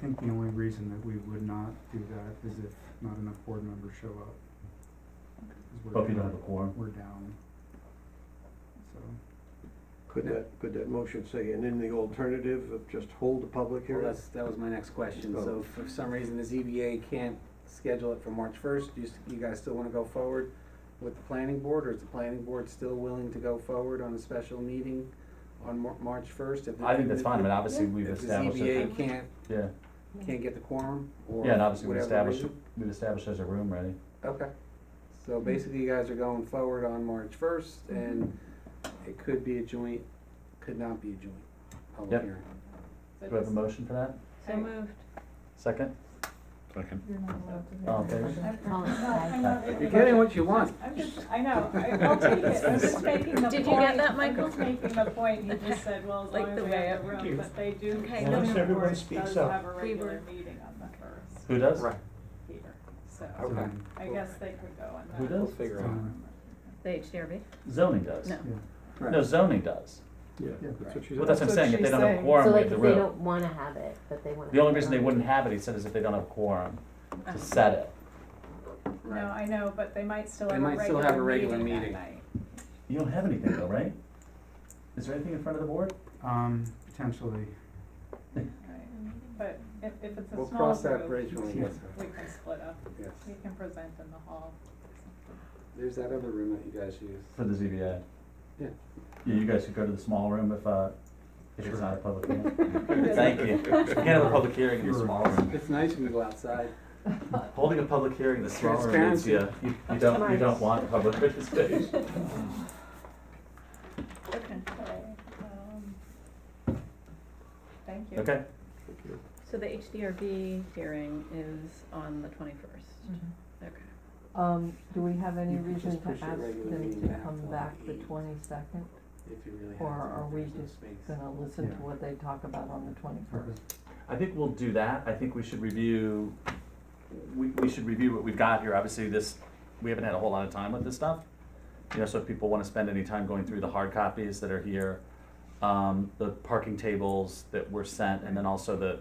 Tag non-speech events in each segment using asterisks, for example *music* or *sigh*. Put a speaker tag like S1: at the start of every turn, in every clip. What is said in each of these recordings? S1: think the only reason that we would not do that is if not enough board members show up. 'Cause we're
S2: But if you don't
S1: down-
S2: have a quorum,
S1: We're down. So,
S3: Could that, could that motion say, and in the alternative of just hold the public
S4: Well,
S3: hearing?
S4: that's, that was my next question,
S3: Oh.
S4: so if for some reason the ZBA can't schedule it for March first, you, s- you guys still wanna go forward with the planning board, or is the planning board still willing to go forward on a special meeting on Mar- March first?
S2: I think that's fine, I mean, obviously, we've
S4: If the
S2: established, it.
S4: ZBA can't,
S2: yeah,
S4: can't get the quorum, or
S2: yeah, and obviously, we've
S4: whatever
S2: established,
S4: reason?
S2: we've established there's a room ready.
S4: Okay, so basically you guys are going forward on March first,
S5: Mm-hmm.
S4: and it could be a joint, could not be a joint public
S2: Yep.
S4: hearing.
S2: Do we have a motion for that?
S5: So moved.
S2: Second?
S6: Second.
S5: You're not allowed to.
S2: All in favor?
S4: You're getting what you want.
S5: I'm just,
S4: *laughs*
S5: I know, I- I'll take it, I'm just making the point.
S7: Did you get that, Michael?
S5: I'm just making the point, you just said, well, as
S7: Like
S5: long as
S7: the
S5: we
S7: way
S5: have the
S7: up.
S5: room, but they do.
S7: Okay.
S5: the
S7: Once
S5: zoning
S8: everyone
S5: board
S8: speaks
S5: does
S8: up.
S5: have a
S7: We
S5: regular
S7: were-
S5: meeting on the first,
S2: Who does?
S5: Peter, so
S4: Okay.
S1: um,
S5: I guess they could go on that.
S2: Who does?
S1: um,
S7: The HDRB?
S2: Zoning does.
S7: No.
S4: Right.
S2: No, zoning does.
S3: Yeah,
S1: Yeah.
S3: that's what she
S2: Well,
S3: said.
S2: that's what I'm saying, if they don't have a
S9: So
S2: quorum, we
S9: like,
S2: have the
S9: if they
S2: room.
S9: don't wanna have it, but they wanna.
S2: The only
S9: have it
S2: reason they
S9: on.
S2: wouldn't have it, he said, is if they don't have a quorum to
S9: Uh-huh.
S7: Oh.
S2: set it.
S5: No, I know, but they might still
S4: They
S5: have a
S4: might still have a regular
S5: regular meeting that
S4: meeting.
S5: night.
S2: You don't have anything though, right? Is there anything in front of the board?
S1: Um, potentially,
S5: right. But if, if it's a
S4: We'll
S5: small
S4: cross that
S5: group,
S4: bridge when we get there.
S5: we can split up,
S4: Yes.
S5: we can present in the hall.
S4: *laughs* There's that other room that you guys use.
S2: For the ZBA?
S4: Yeah.
S2: Yeah, you guys could go to the small room if, uh, if it's not a public
S9: *laughs*
S2: hearing.
S5: Yeah.
S2: Thank you. We can't have a public hearing in the
S1: You're-
S2: small room.
S4: It's nice when you go outside.
S2: Holding a public hearing in the small room means,
S4: Transparency.
S2: yeah, you, you don't, you don't want public *laughs* participation.
S7: Okay,
S5: Okay, um, Thank you.
S2: Okay,
S7: so the HDRB hearing is on the twenty-first, okay.
S10: Um, do we have any
S4: You could
S10: reason
S4: just
S10: to
S4: push
S10: ask
S4: your regular
S10: them
S4: meeting
S10: to
S4: back
S10: come
S4: till
S10: back the
S4: eight.
S10: twenty-second?
S4: If you really have to.
S10: Or are we
S4: There's no
S10: just
S4: space.
S10: Gonna listen to
S1: Yeah.
S10: what they talk about on the
S1: okay.
S10: twenty-first?
S2: I think we'll do that. I think we should review, we, we should review what we've got here. Obviously, this, we haven't had a whole lot of time with this stuff. You know, so if people wanna spend any time going through the hard copies that are here, um, the parking tables that were sent, and then also the,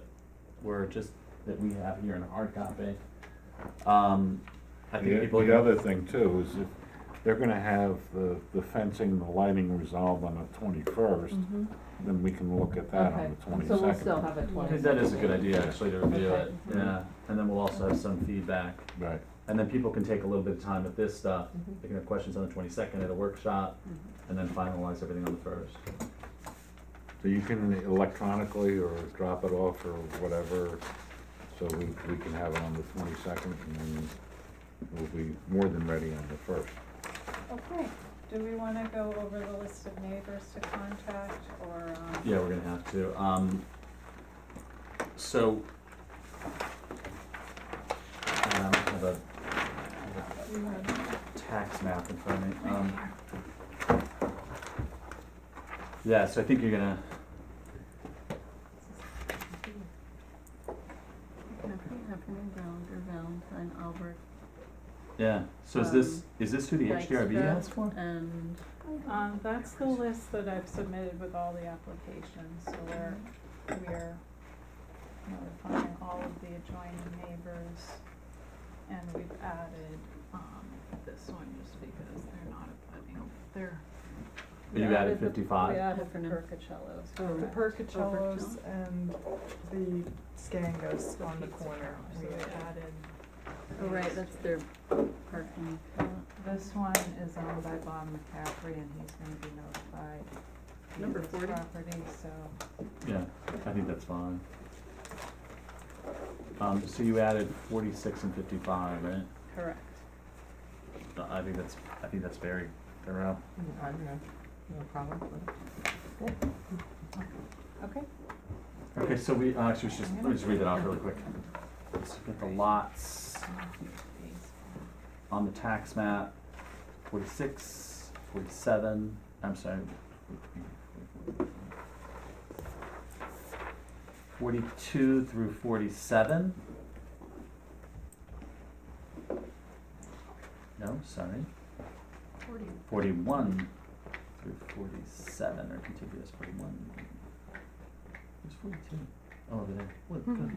S2: were just, that we have here in a hard copy. Um, I think
S6: The
S2: people.
S6: the other thing too is if they're gonna have the, the fencing, the lighting resolved on the twenty-first, then we can look at that on
S10: Mm-hmm.
S6: the
S10: Okay, so we'll
S6: twenty-second.
S10: still have a
S2: I
S10: twenty-second.
S2: think that is a good idea, actually, to review
S10: Okay.
S2: it, yeah, and then we'll also have some feedback.
S6: Right,
S2: And then people can take a little bit of time with this stuff,
S10: Mhm.
S2: they can have questions on the twenty-second at a workshop, and then finalize everything on the first.
S6: so you can electronically or drop it off or whatever, so we, we can have it on the twenty-second and then we'll be more than ready on the first.
S5: Okay, do we wanna go over the list of neighbors to contact, or, um?
S2: Yeah, we're gonna have to, um, so. Um, I have a, I
S5: we want-
S2: have a tax map in front of me, um. Yeah, so I think you're gonna,
S7: Heffernan, Ballinger, Valentine, Albert,
S2: yeah, so is this,
S7: Um,
S2: is this who the HDRB
S7: Dykstra,
S2: asked for?
S7: And
S5: Um, that's the list that I've submitted with all the applications, so we're, we're notifying all of the adjoining neighbors. And we've added, um, this one just because they're not a budding, they're. we
S2: You added
S5: the- We
S2: fifty-five,
S5: added the
S7: Heffernan.
S5: percocellos.
S8: The
S5: correct.
S8: percocellos and the Scangos on the
S5: Pizza
S8: corner.
S5: parlor,
S8: we
S5: So we
S8: added.
S5: added.
S7: oh, right,
S5: these
S7: that's
S5: two.
S7: their parking.
S8: This one is owned by Bob
S10: um,
S8: McCaffrey and he's gonna be notified. of
S7: Number
S8: this
S7: 40.
S8: Property, so.
S2: yeah, I think that's fine. Um, so you added forty-six and fifty-five, right?
S7: Correct.
S2: Uh, I think that's, I think that's very thorough.
S10: I don't know, no problem with it.
S5: Okay.
S2: Okay, so we, uh, actually, we should just, let me just read that off really quick. Let's get the lots on the tax map, forty-six, forty-seven, I'm sorry. Forty-two through forty-seven. No, sorry.
S5: Forty.
S2: Forty-one through forty-seven are contiguous, forty-one. There's forty-two. Oh, over there. What,
S7: Hmm.